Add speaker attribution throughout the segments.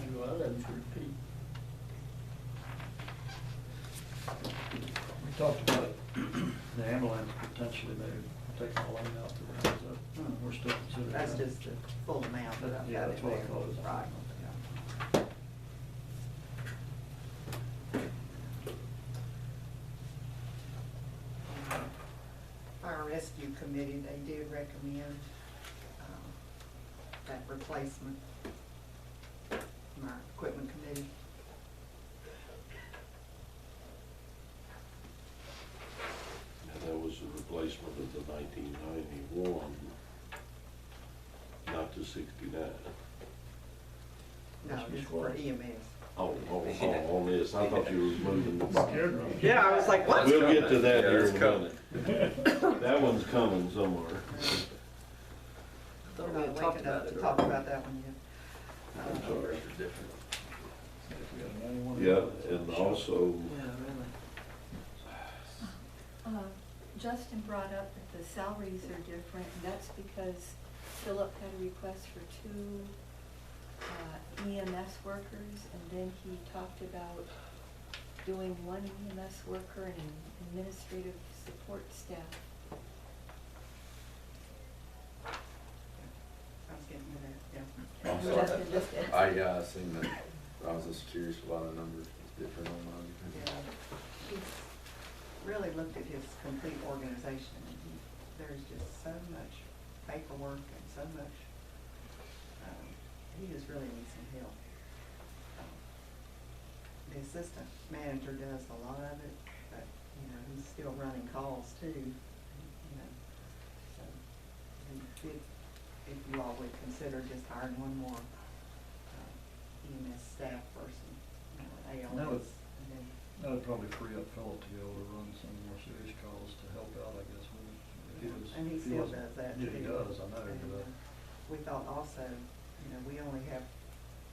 Speaker 1: hundred feet. We talked about the ambulance potentially maybe taking a lane out the rounds up,
Speaker 2: Hmm.
Speaker 1: uh, we're still considering.
Speaker 2: That's
Speaker 1: that.
Speaker 2: just the full amount, but I've
Speaker 1: Yeah,
Speaker 2: got
Speaker 1: that's
Speaker 2: it
Speaker 1: what I
Speaker 2: there.
Speaker 1: thought it was.
Speaker 2: Right. Fire Rescue Committee, they do recommend, um, that replacement. My equipment committee.
Speaker 3: And that was a replacement of the nineteen ninety-one, not the sixty-nine.
Speaker 2: No,
Speaker 1: That's
Speaker 2: this is for E
Speaker 1: required.
Speaker 2: EMS.
Speaker 3: Oh, oh, oh, on this, I thought you was moving the box.
Speaker 2: Yeah, I was like, what?
Speaker 3: We'll get to that
Speaker 4: Yeah,
Speaker 3: here
Speaker 4: it's
Speaker 3: in a minute. That one's coming somewhere.
Speaker 2: We're
Speaker 4: Thought we
Speaker 2: not
Speaker 4: had talked
Speaker 2: waking up
Speaker 4: about
Speaker 2: to
Speaker 4: it.
Speaker 2: talk about that one yet.
Speaker 3: I'm
Speaker 2: Uh,
Speaker 3: sorry.
Speaker 1: If we had a main one.
Speaker 3: Yeah, and also,
Speaker 4: Yeah, really.
Speaker 5: Uh, Justin brought up that the salaries are different, and that's because Philip had a request for two uh, EMS workers, and then he talked about doing one EMS worker and an administrative support staff.
Speaker 2: I was getting to that, yeah.
Speaker 4: I'm
Speaker 5: Justin
Speaker 4: sorry.
Speaker 5: just asked-
Speaker 4: I, yeah, I seen that, I was just curious about the numbers, it's different on mine.
Speaker 2: Yeah, he's really looked at his complete organization, and he, there's just so much paperwork and so much, um, he just really needs some help. Um, The assistant manager does a lot of it, but, you know, he's still running calls too, you know, so, and if, if you all would consider just hiring one more um, EMS staff person, you know,
Speaker 1: That
Speaker 2: an
Speaker 1: would-
Speaker 2: ALS, and then
Speaker 1: That'd probably free up Philip to be able to run some more serious calls to help out, I guess, when if he was.
Speaker 2: And he
Speaker 1: if
Speaker 2: still
Speaker 1: wasn't-
Speaker 2: does that,
Speaker 1: Yeah, he
Speaker 2: too.
Speaker 1: does, I know,
Speaker 2: And,
Speaker 1: but.
Speaker 2: uh, We thought also, you know, we only have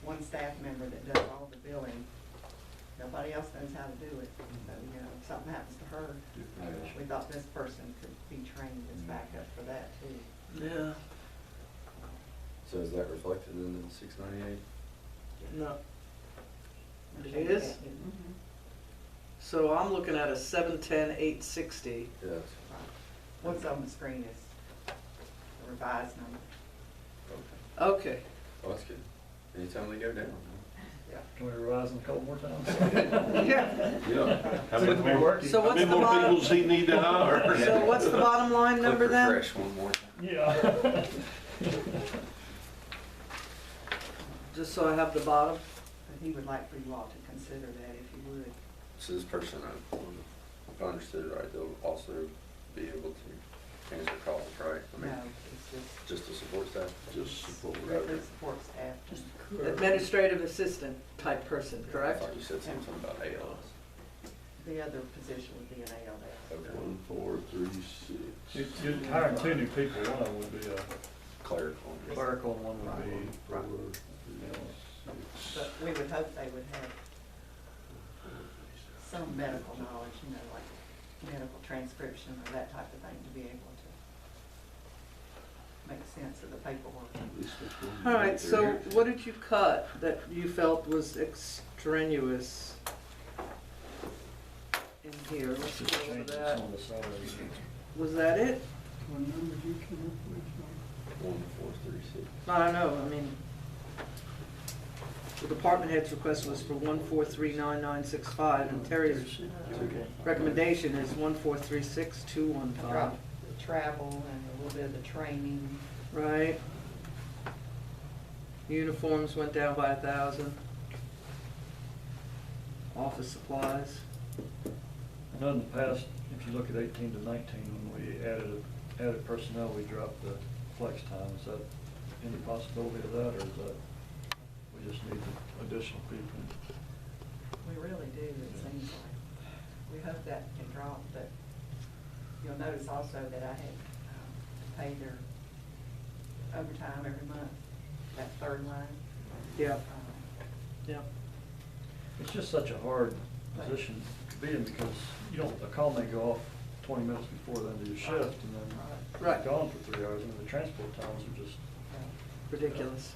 Speaker 2: one staff member that does all the billing. Nobody else knows how to do it, so, you know, if something happens to her, we thought this person could be trained
Speaker 1: Mm.
Speaker 2: as backup for that too.
Speaker 6: Yeah,
Speaker 4: So is that reflected in the six ninety-eight?
Speaker 6: no. It
Speaker 2: Okay,
Speaker 6: is?
Speaker 2: yeah, yeah.
Speaker 5: Mhm.
Speaker 6: So I'm looking at a seven ten eight sixty.
Speaker 4: Yes.
Speaker 2: Right. What's on the screen is the revised number.
Speaker 4: Okay.
Speaker 6: Okay.
Speaker 4: Oh, that's good. Anytime they go down,
Speaker 2: Yeah.
Speaker 1: Can we revise them a couple more times?
Speaker 6: Yeah.
Speaker 3: yeah. How
Speaker 1: Seems
Speaker 3: many
Speaker 1: to be
Speaker 3: more,
Speaker 1: working.
Speaker 6: So
Speaker 3: how
Speaker 6: what's
Speaker 3: many
Speaker 6: the
Speaker 3: more
Speaker 6: bottom-
Speaker 3: people does he need to hire?
Speaker 6: So what's the bottom line
Speaker 4: huh? Click
Speaker 6: number then?
Speaker 4: refresh one more time.
Speaker 1: Yeah.
Speaker 6: Just so I have the bottom.
Speaker 2: But he would like for you all to consider that if you would.
Speaker 4: So this person, I- if I understood right, they'll also be able to answer calls, right? I mean,
Speaker 2: No, it's just.
Speaker 4: Just to support staff?
Speaker 3: Just support.
Speaker 2: Strictly support staff.
Speaker 6: Administrative assistant type person,
Speaker 4: I
Speaker 6: correct?
Speaker 4: thought you said something about ALS.
Speaker 2: The other position would be an ALS.
Speaker 4: Okay.
Speaker 3: One, four, three, six.
Speaker 1: You'd you'd hire two new people, one of them would be a
Speaker 4: Clerical.
Speaker 1: clerical, and one would
Speaker 3: One,
Speaker 1: be
Speaker 3: four, three, six.
Speaker 2: But we would hope they would have some medical knowledge, you know, like medical transcription or that type of thing to be able to make sense of the paperwork.
Speaker 3: At least that's one
Speaker 6: All right,
Speaker 3: right
Speaker 6: so
Speaker 3: there.
Speaker 6: what did you cut that you felt was extraneous in here? Let's
Speaker 1: Just
Speaker 6: go over
Speaker 1: change
Speaker 6: that.
Speaker 1: some of the salaries.
Speaker 6: Was that it?
Speaker 4: One, four, three, six.
Speaker 6: No, I know, I mean, the department head's request was for one four three nine nine six five, and Terry's recommendation is one four three six two one
Speaker 2: I
Speaker 6: five,
Speaker 2: dropped the travel and a little bit of the training.
Speaker 6: right? Uniforms went down by a thousand. Office supplies,
Speaker 1: I know in the past, if you look at eighteen to nineteen, when we added, added personnel, we dropped the flex time. Is that any possibility of that, or is that, we just need additional people?
Speaker 2: We really do, it seems like. We hope that can drop, but you'll notice also that I had um, to pay their overtime every month, that third line.
Speaker 6: yeah,
Speaker 2: Um,
Speaker 6: yeah.
Speaker 1: It's just such a hard position to be in because you don't, a call may go off twenty minutes before the end of your shift and then
Speaker 2: Right.
Speaker 1: you're gone for three hours and the transport times are just
Speaker 2: Yeah.
Speaker 6: Ridiculous.